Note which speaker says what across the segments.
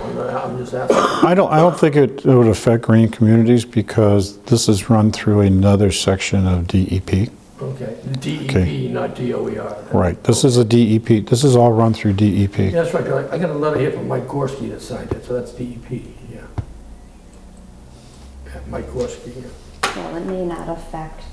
Speaker 1: just asking.
Speaker 2: I don't, I don't think it it would affect green communities because this is run through another section of E DEP.
Speaker 1: Okay,
Speaker 2: Okay.
Speaker 1: DEP, not E DOER.
Speaker 2: Right, this is a DEP, this is all run through E DEP.
Speaker 1: Yeah, That's right, I- I got a letter here from Mike Gorski that signed it, so that's DEP, yeah. Yeah, Mike Gorski, yeah.
Speaker 3: Well, it may not affect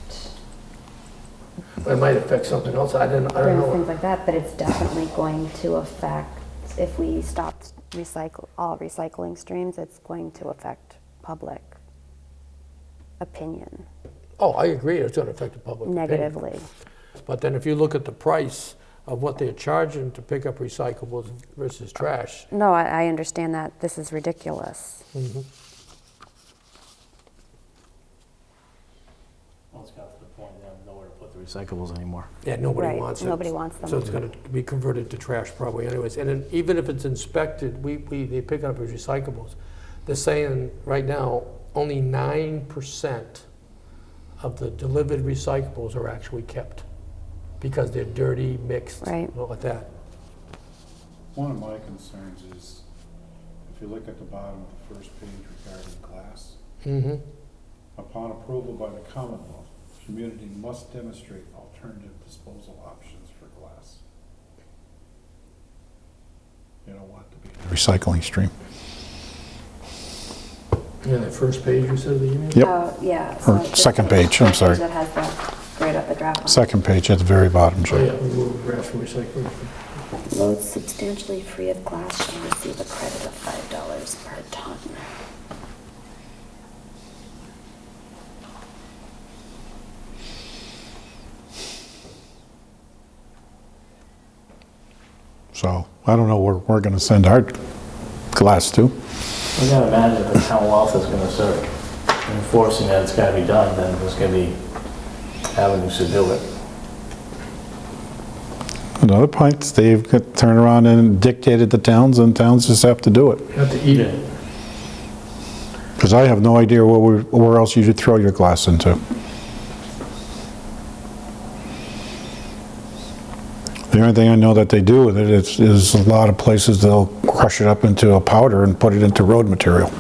Speaker 1: But It might affect something else, I didn't, I don't
Speaker 3: things,
Speaker 1: know.
Speaker 3: things like that, but it's definitely going to affect, if we stop recycle, all recycling streams, it's going to affect public opinion
Speaker 1: Oh, I agree, it's gonna affect the public opinion.
Speaker 3: negatively.
Speaker 1: But then if you look at the price of what they're charging to pick up recyclables versus trash,
Speaker 3: No, I, I understand that this is ridiculous.
Speaker 4: Well, it's got to the point, they have nowhere to put the recyclables anymore.
Speaker 1: yeah, nobody
Speaker 3: Right,
Speaker 1: wants it.
Speaker 3: nobody wants them.
Speaker 1: So it's gonna be converted to trash probably anyways. And then even if it's inspected, we, we, they pick up as recyclables. They're saying right now, only nine percent of the delivered recyclables are actually kept because they're dirty, mixed,
Speaker 3: Right.
Speaker 1: all of that.
Speaker 5: One of my concerns is, if you look at the bottom of the first page regarding glass,
Speaker 1: Mm-hmm.
Speaker 5: upon approval by the Commonwealth, community must demonstrate alternative disposal options for glass. You don't want to be.
Speaker 2: Recycling stream.
Speaker 1: Yeah, that first page you said of the email?
Speaker 2: Yep.
Speaker 3: Oh, yeah.
Speaker 2: Or
Speaker 3: it's just
Speaker 2: second
Speaker 3: a
Speaker 2: page, I'm sorry.
Speaker 3: That has the, right up the draft. on it.
Speaker 2: Second page at the very bottom,
Speaker 1: Oh, yeah,
Speaker 2: Joe.
Speaker 1: remove trash from recycling.
Speaker 3: Loads substantially free of glass shall receive a credit of five dollars per ton.
Speaker 2: So I don't know where we're going to send our glass to.
Speaker 4: I gotta imagine if the town wealth is gonna start enforcing that it's gotta be done, then there's gonna be avenues to do it.
Speaker 2: Another point, they've got- turned around and dictated to towns and towns just have to do it.
Speaker 1: Have to eat it.
Speaker 2: Because I have no idea where, we- where else you should throw your glass into. The only thing I know that they do with it is, is a lot of places they'll crush it up into a powder and put it into road material.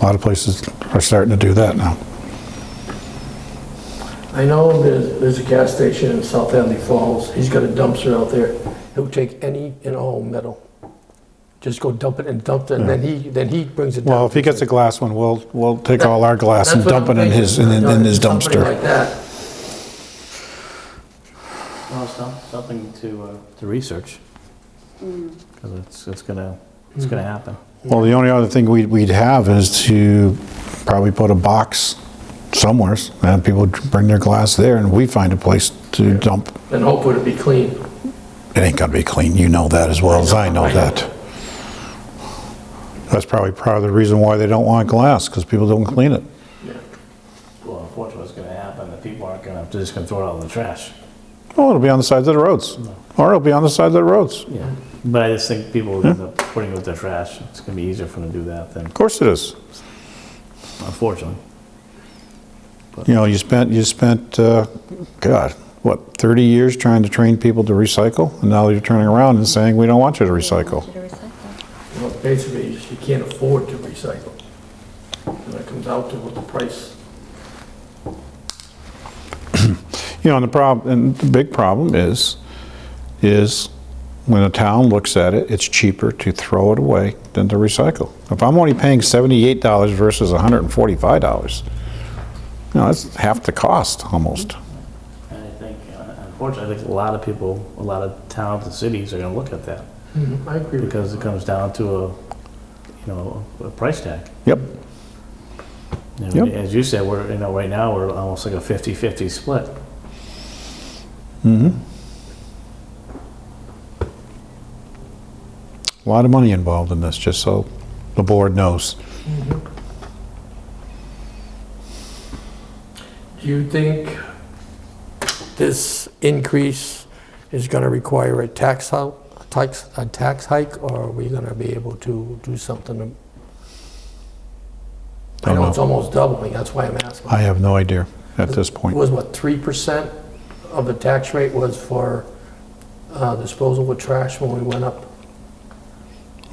Speaker 2: A lot of places are starting to do that now.
Speaker 1: I know there's, there's a gas station in South Hadley Falls, he's got a dumpster out there, he'll take any and all metal. Just go dump it and dump it, and then he, then he brings it down.
Speaker 2: Well, if he
Speaker 1: to-
Speaker 2: gets a glass one, we'll, we'll take all our glass
Speaker 1: That's
Speaker 2: and
Speaker 1: what
Speaker 2: dump it
Speaker 1: I'm
Speaker 2: in
Speaker 1: thinking.
Speaker 2: his, in in his
Speaker 1: Something
Speaker 2: dumpster.
Speaker 1: like that.
Speaker 4: Well, it's some- something to, uh, to research. Cause it's, it's gonna, it's gonna happen.
Speaker 2: Well, the only other thing we'd, we'd have is to probably put a box somewhere, and have people bring their glass there, and we find a place to dump.
Speaker 1: And hopefully it'll be clean.
Speaker 2: It ain't gonna be clean, you know that as well as I know that. That's probably part of the reason why they don't want glass, because people don't clean it.
Speaker 4: Well, unfortunately, it's gonna happen, the people aren't gonna, they're just gonna throw it out in the trash.
Speaker 2: Oh, it'll be on the sides of the roads, or it'll be on the sides of the roads. Of
Speaker 4: Yeah. But I just think people will end up putting it with their trash, it's gonna be easier for them to do that than,
Speaker 2: course it is.
Speaker 4: unfortunately.
Speaker 2: You know, you spent, you spent, uh, God, what, 30 years trying to train people to recycle, and now you're turning around and saying, we don't want you to recycle.
Speaker 3: To recycle.
Speaker 1: You know, Basically, you just- you can't afford to recycle. And it comes out to what the price.
Speaker 2: You know, and the problem, and the big problem is, is when a town looks at it, it's cheaper to throw it away than to recycle. If I'm only paying seventy-eight dollars versus hundred and forty-five dollars, you know, that's half the cost almost.
Speaker 4: And I think, uh, unfortunately, I think a lot of people, a lot of towns and cities are gonna look at that.
Speaker 1: Mm-hmm. I agree with
Speaker 4: because it comes down to a, you know, a price tag.
Speaker 2: Yep.
Speaker 4: You know,
Speaker 2: Yep.
Speaker 4: As you said, we're, you know, right now, we're almost like a 50-50 split.
Speaker 2: A lot of money involved in this, just so the board knows.
Speaker 1: Do you think this increase is going to require a tax hike, tax, a tax hike, or are we going to be able to do something? to- I
Speaker 2: Don't
Speaker 1: know it's
Speaker 2: know.
Speaker 1: almost doubling, that's why I'm asking.
Speaker 2: I have no idea at this
Speaker 1: It
Speaker 2: point.
Speaker 1: was what, 3% of the tax rate was for uh, disposal with trash when we went up?